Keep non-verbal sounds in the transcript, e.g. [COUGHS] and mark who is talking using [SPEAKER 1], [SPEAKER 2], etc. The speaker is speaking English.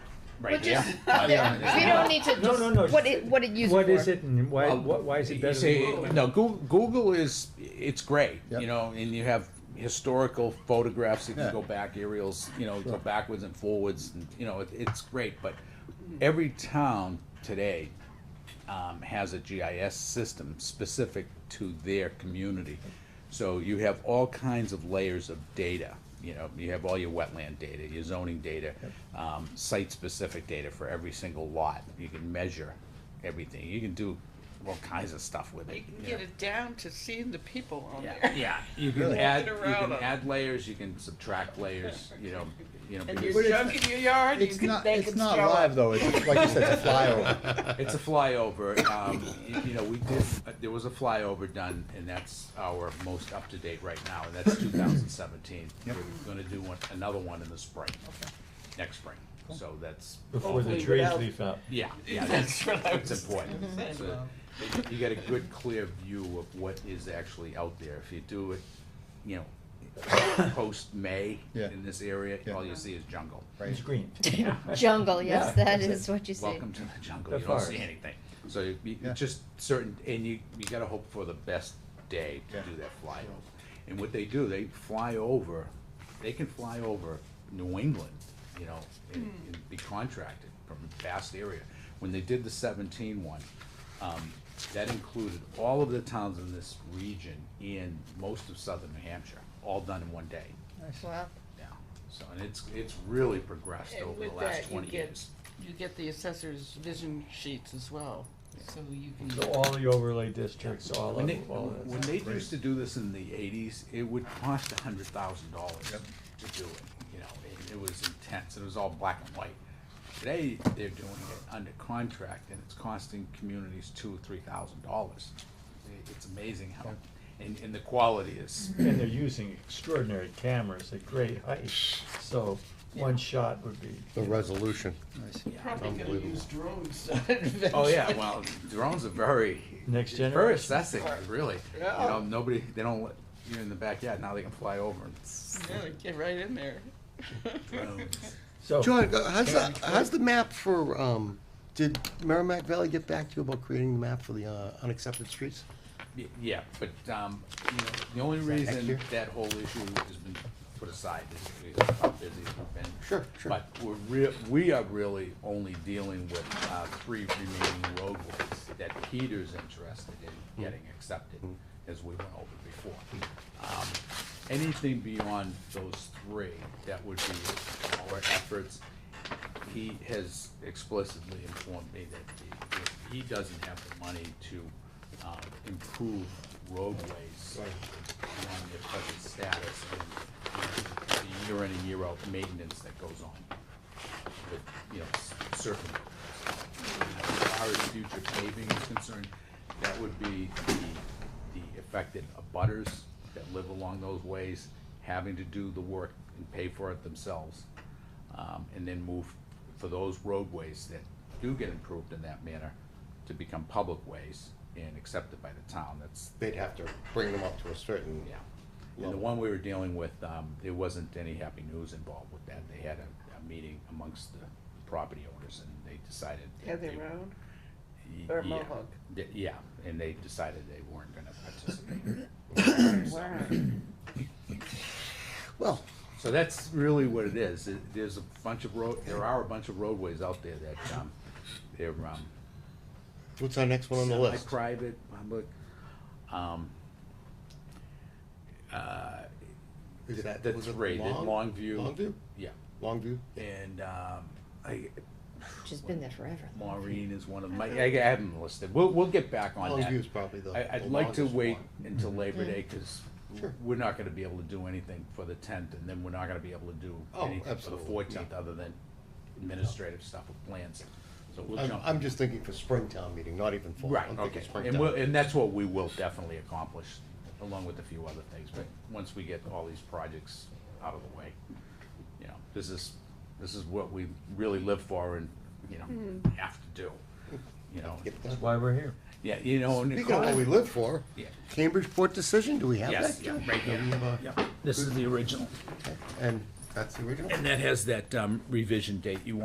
[SPEAKER 1] right
[SPEAKER 2] Which
[SPEAKER 1] here.
[SPEAKER 2] [LAUGHS]
[SPEAKER 3] [LAUGHS]
[SPEAKER 2] is-
[SPEAKER 4] Yeah.
[SPEAKER 2] We don't need to
[SPEAKER 4] No, no, no.
[SPEAKER 2] just, what it, what it used for.
[SPEAKER 4] What is it and why, what, why is it
[SPEAKER 3] Um, You
[SPEAKER 4] better
[SPEAKER 3] see,
[SPEAKER 4] than Google?
[SPEAKER 3] no, Google, Google is, it's great,
[SPEAKER 5] Yep.
[SPEAKER 3] you know, and you have historical photographs, you
[SPEAKER 5] Yeah.
[SPEAKER 3] can go back aerials, you know, go
[SPEAKER 5] Sure.
[SPEAKER 3] backwards and forwards, and, you know, it, it's great, but every town today um, has a GIS system specific to their community. So you have all kinds of layers of data, you know, you have all your wetland data, your zoning data, um, site-specific data for every single lot. You can measure everything, you can do all kinds of stuff with it.
[SPEAKER 6] You can
[SPEAKER 3] you know.
[SPEAKER 6] get it down to seeing the people on there.
[SPEAKER 3] Yeah, you can
[SPEAKER 5] Really?
[SPEAKER 3] add,
[SPEAKER 6] Walking
[SPEAKER 3] you
[SPEAKER 6] around
[SPEAKER 3] can
[SPEAKER 6] on it.
[SPEAKER 3] add layers, you can subtract layers, you know, you know,
[SPEAKER 6] And
[SPEAKER 3] because
[SPEAKER 6] your junk in your yard, you
[SPEAKER 5] It's
[SPEAKER 6] can,
[SPEAKER 5] not,
[SPEAKER 6] they
[SPEAKER 5] it's
[SPEAKER 6] can
[SPEAKER 5] not
[SPEAKER 6] throw it.
[SPEAKER 5] live though, it's just, like you said,
[SPEAKER 3] [LAUGHS]
[SPEAKER 5] it's a flyover.
[SPEAKER 3] it's a flyover. Um, y- you know, we did, uh, there was a flyover done, and that's our most up to date right now, and that's two thousand seventeen. We're
[SPEAKER 5] Yep.
[SPEAKER 3] gonna do one, another one in the spring, next spring, so that's,
[SPEAKER 4] Before the
[SPEAKER 6] Hopefully
[SPEAKER 4] trees
[SPEAKER 6] without-
[SPEAKER 4] leaf up.
[SPEAKER 6] [LAUGHS]
[SPEAKER 3] yeah, yeah, that's,
[SPEAKER 6] That's what I
[SPEAKER 3] that's
[SPEAKER 6] was
[SPEAKER 3] important.
[SPEAKER 6] saying.
[SPEAKER 3] So you- You get a good, clear view of what is actually out there. If you do it, you know, [COUGHS] post-May
[SPEAKER 5] Yeah.
[SPEAKER 3] in this area,
[SPEAKER 5] Yeah.
[SPEAKER 3] all you see is jungle.
[SPEAKER 4] It's green. [LAUGHS]
[SPEAKER 2] Jungle, yes,
[SPEAKER 4] Yeah,
[SPEAKER 2] that
[SPEAKER 4] that's
[SPEAKER 2] is what you say.
[SPEAKER 3] Welcome to the jungle.
[SPEAKER 4] The
[SPEAKER 3] you don't see
[SPEAKER 4] forest.
[SPEAKER 3] anything. So you, you
[SPEAKER 5] Yeah.
[SPEAKER 3] just certain, and you you got to hope for the best day to
[SPEAKER 5] Yeah.
[SPEAKER 3] do that flyover. And what they do, they fly over. They can fly over New England, you know, and,
[SPEAKER 6] Hmm.
[SPEAKER 3] and be contracted from a vast area. When they did the 17 one, um, that included all of the towns in this region and most of southern New Hampshire, all done in one day.
[SPEAKER 2] Wow.
[SPEAKER 3] Yeah. So and it's it's really progressed
[SPEAKER 6] And
[SPEAKER 3] over the
[SPEAKER 6] with
[SPEAKER 3] last
[SPEAKER 6] that, you
[SPEAKER 3] 20
[SPEAKER 6] get-
[SPEAKER 3] years.
[SPEAKER 6] You get the assessor's vision sheets as well, so you can.
[SPEAKER 4] So all the overlay districts, all
[SPEAKER 3] When
[SPEAKER 4] of,
[SPEAKER 3] they,
[SPEAKER 4] all of
[SPEAKER 3] when
[SPEAKER 4] that.
[SPEAKER 3] they
[SPEAKER 5] Great.
[SPEAKER 3] used to do this in the eighties, it would cost a hundred thousand dollars
[SPEAKER 5] Yep.
[SPEAKER 3] to do it, you know, it, it was intense, it was all black and white. Today, they're doing it under contract, and it's costing communities two or three thousand dollars. It's amazing how, and, and the quality
[SPEAKER 5] [LAUGHS]
[SPEAKER 3] is,
[SPEAKER 4] And they're using extraordinary cameras at great height, so one shot would be.
[SPEAKER 5] The resolution.
[SPEAKER 6] Probably gonna
[SPEAKER 5] Unbelievable.
[SPEAKER 6] use drones. [LAUGHS]
[SPEAKER 3] oh yeah, well, drones are very,
[SPEAKER 4] Next
[SPEAKER 3] very
[SPEAKER 4] generation.
[SPEAKER 3] assessing, really. You
[SPEAKER 6] Yeah.
[SPEAKER 3] know, nobody, they don't, let- you're in the backyard, now they can fly over and.
[SPEAKER 6] Yeah, Get right in there.
[SPEAKER 4] So,
[SPEAKER 7] John, uh, how's the, how's the map for, um, did Merrimack Valley get back to you about creating the map for the, uh, unaccepted streets?
[SPEAKER 3] Y- Yeah, but, um, you know, the only
[SPEAKER 7] next
[SPEAKER 3] reason
[SPEAKER 7] year?
[SPEAKER 3] that whole issue has been put aside is because of how busy we've been.
[SPEAKER 7] Sure, sure.
[SPEAKER 3] But we're rea- we are really only dealing with, uh, three remaining roadways that Peter's interested in
[SPEAKER 7] Mm-hmm.
[SPEAKER 3] getting accepted, as we went over before. Um, anything beyond those three, that would be our efforts. He has explicitly informed me that he- that he doesn't have the money to um, improve roadways on their present status and you know, the year in and year out maintenance that goes on with, you know, s- certain. roads. As far as future paving is concerned, that would be the, the affected abutters that live along those ways, having to do the work and pay for it themselves. Um, and then move for those roadways that do get improved in that manner to become public ways and accepted by the town, that's,
[SPEAKER 7] They'd have to bring them up to a certain.
[SPEAKER 3] yeah. And the one we were dealing with, um, there wasn't any happy news involved with that. They had a, a meeting amongst the property owners and they decided. that
[SPEAKER 6] Have
[SPEAKER 3] they-
[SPEAKER 6] their own.
[SPEAKER 3] Y-
[SPEAKER 6] or
[SPEAKER 3] yeah.
[SPEAKER 6] Mohawk?
[SPEAKER 3] Th- Yeah, and they decided they weren't gonna participate.
[SPEAKER 6] [CLEARS THROAT] Wow.
[SPEAKER 7] Well,
[SPEAKER 3] So that's really what it is. It- There's a bunch of road, there are a bunch of roadways out there that, um, they're, um,
[SPEAKER 7] what's our next one on the list?
[SPEAKER 3] Private, public, um, uh,
[SPEAKER 7] Is it-
[SPEAKER 3] that, that's
[SPEAKER 7] was it
[SPEAKER 3] three, the
[SPEAKER 7] Long-
[SPEAKER 3] Longview.
[SPEAKER 7] Longview?
[SPEAKER 3] Yeah.
[SPEAKER 7] Longview?
[SPEAKER 3] and um, I,
[SPEAKER 2] Which has been there forever.
[SPEAKER 3] Maureen is one of my. I, I haven't listed. We'll we'll get back on that.
[SPEAKER 7] Longview's probably the.
[SPEAKER 3] I, I'd
[SPEAKER 7] the
[SPEAKER 3] like to
[SPEAKER 7] longest
[SPEAKER 3] wait
[SPEAKER 7] one.
[SPEAKER 3] until Labor Day because
[SPEAKER 7] Sure.
[SPEAKER 3] we're not going to be able to do anything for the tenth, and then we're not going to be able to do
[SPEAKER 7] Oh,
[SPEAKER 3] anything for the
[SPEAKER 7] absolutely,
[SPEAKER 3] fourteenth other than administrative stuff with plans. So we'll
[SPEAKER 7] I'm,
[SPEAKER 3] jump.
[SPEAKER 7] I'm just thinking for Springtown meeting, not even fall.
[SPEAKER 3] Right,
[SPEAKER 7] I'm thinking
[SPEAKER 3] okay,
[SPEAKER 7] springtime.
[SPEAKER 3] and we'll, and that's what we will definitely accomplish, along with a few other things, but once we get all these projects out of the way, you know, this is, this is what we really live for and, you know, have to do, you know,
[SPEAKER 7] Get
[SPEAKER 4] that's
[SPEAKER 7] that.
[SPEAKER 4] why we're here.
[SPEAKER 3] yeah, you know, and.
[SPEAKER 7] Speaking of what we live for,
[SPEAKER 3] Yeah.
[SPEAKER 7] Cambridge Port decision, do we have that?
[SPEAKER 3] Yes, yeah, right
[SPEAKER 7] Do we
[SPEAKER 3] here,
[SPEAKER 7] have a-
[SPEAKER 3] yeah, this is the original,
[SPEAKER 7] And that's the original?
[SPEAKER 3] and that has that, um, revision date you